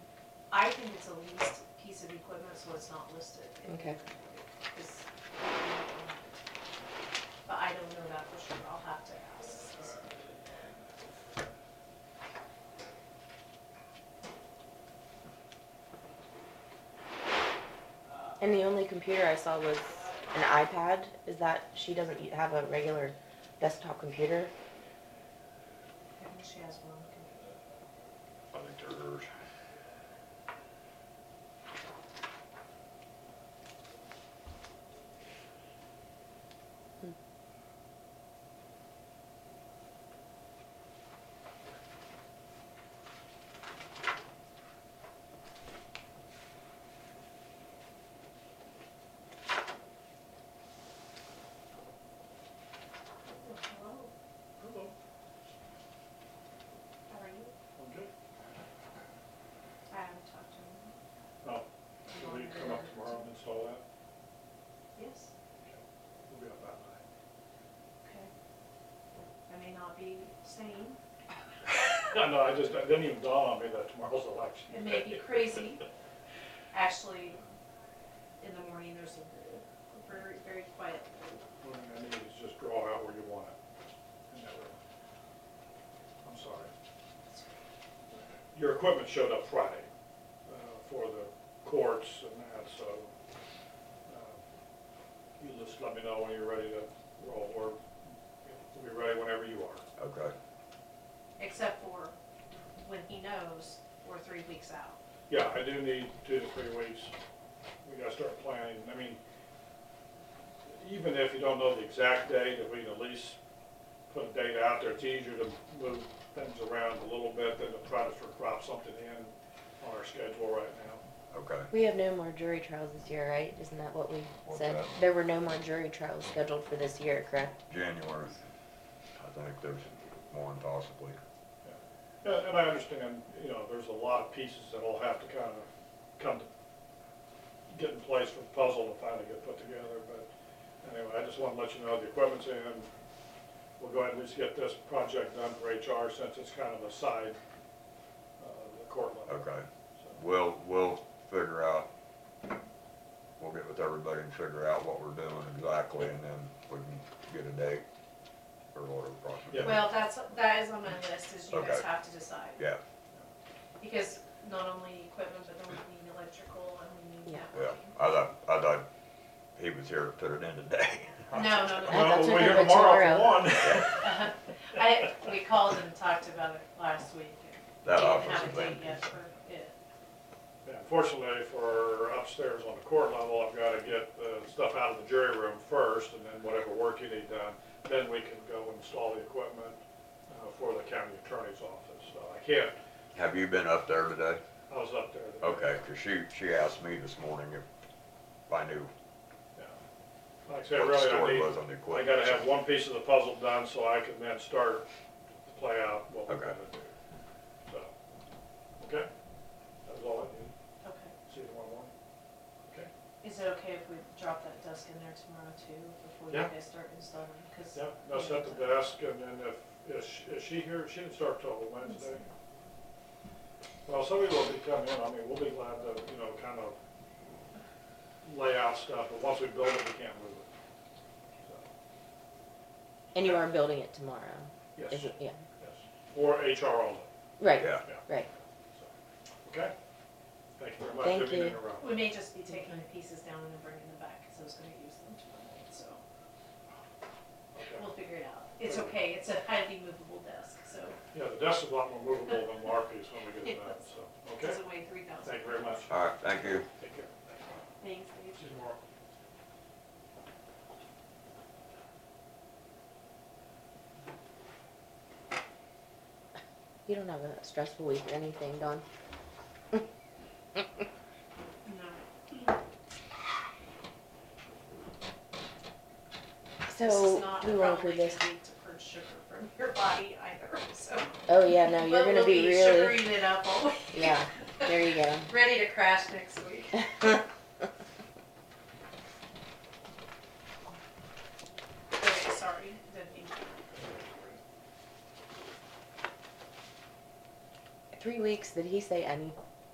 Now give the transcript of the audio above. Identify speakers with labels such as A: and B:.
A: think it's a leased piece of equipment, so it's not listed.
B: Okay.
A: It's- But I don't know that for sure, I'll have to ask.
B: And the only computer I saw was an iPad. Is that, she doesn't u- have a regular desktop computer?
A: I think she has one.
C: I think they're hers.
A: Hello,
D: Hello,
A: how are you?
D: I'm good.
A: I haven't talked to her.
D: Oh, will you come up tomorrow and install that?
A: Yes,
D: We'll be up that night.
A: okay. I may not be sane,
D: No, no, I just, it didn't even dawn on me that tomorrow's election.
A: it may be crazy. Actually, in the morning, there's a very, very quiet
D: What I need is just draw out where you want it. And that way- I'm sorry. Your equipment showed up Friday uh, for the courts and that, so uh, you just let me know when you're ready to roll, or we'll be ready whenever you are.
C: Okay.
A: except for when he knows we're three weeks out.
D: Yeah, I do need two to three weeks. We gotta start planning. I mean, even if you don't know the exact date, if we can at least put a date out there, it's easier to move things around a little bit than to try to sort of drop something in on our schedule right now.
C: Okay.
B: We have no more jury trials this year, right? Isn't that what we
C: What's
B: said?
C: that?
B: There were no more jury trials scheduled for this year, correct?
C: January, I think there's one possibly.
D: And- And I understand, you know, there's a lot of pieces that'll have to kind of come to, get in place for the puzzle to finally get put together, but anyway, I just wanna let you know the equipment's in. We'll go ahead and just get this project done for HR since it's kind of a side, uh, the court level.
C: Okay.
D: So,
C: We'll, we'll figure out, we'll get with everybody and figure out what we're doing exactly and then we can get a date or whatever.
D: Yeah.
C: process.
A: Well, that's, that is on my list, is you guys
C: Okay.
A: have to decide.
C: Yeah,
A: Because not only equipment, but then we need electrical and we need
B: Yeah.
C: yeah.
A: networking.
C: I thought, I thought he was here to put it in today.
A: No, no, no.
D: Well,
B: that's
D: we'll
B: what
D: be here
B: they're
D: tomorrow for
B: tomorrow.
D: one.
A: I, we called and talked about it last week.
C: That
A: Didn't
C: office
A: have
C: is
A: a date
C: empty,
A: yet
C: so.
A: for it.
D: Yeah, Unfortunately, for upstairs on the court level, I've gotta get the stuff out of the jury room first, and then whatever work you need done, then we can go install the equipment uh, for the county attorney's office, so I can't,
C: Have you been up there today?
D: I was up there. today.
C: Okay, 'cause she, she asked me this morning if I knew
D: Yeah. Like I said,
C: what
D: really,
C: the
D: I
C: story
D: need,
C: was on the
D: I
C: equipment.
D: gotta have one piece of the puzzle done, so I can then start to play out what we're
C: Okay.
D: gonna do. So, okay, that was all I need,
A: Okay.
D: see you tomorrow morning. Okay,
A: Is it okay if we drop that desk in there tomorrow too, before
D: Yeah.
A: you guys start installing? 'Cause-
D: yeah, now set the desk, and then if, is she- is she here, she didn't start till Wednesday. Well, somebody will be coming in, I mean, we'll be glad to, you know, kind of lay out stuff, but once we build it, we can't move it. So,
B: And you are building it tomorrow?
D: Yes,
B: Is it, yeah,
D: yes, or HR only.
B: right,
C: Yeah,
B: right.
D: Okay? Thank you very much.
B: Thank
D: Didn't mean
B: you.
D: to interrupt.
A: We may just be taking the pieces down and bringing them back, because I was gonna use them tomorrow, so
D: Okay.
A: we'll figure it out. It's okay, it's a highly movable desk, so
D: Yeah, the desk is a lot more movable than Marky's when we get it done, so,
A: it
D: okay?
A: doesn't weigh three thousand.
D: Thank you very much.
C: all right, thank you.
D: Take care.
A: Thanks, Dave.
D: See you tomorrow.
B: You don't have a stressful week or anything, Dawn?
A: No. This is
B: So,
A: not
B: we won't approve
A: probably
B: this.
A: a week to purge sugar from your body either, so.
B: Oh, yeah, no, you're
A: But
B: gonna
A: we'll
B: be really,
A: Sugaring it up all week.
B: yeah, there you go.
A: Ready to crash next week. Okay, sorry, didn't mean to.
B: Three weeks, did he say any?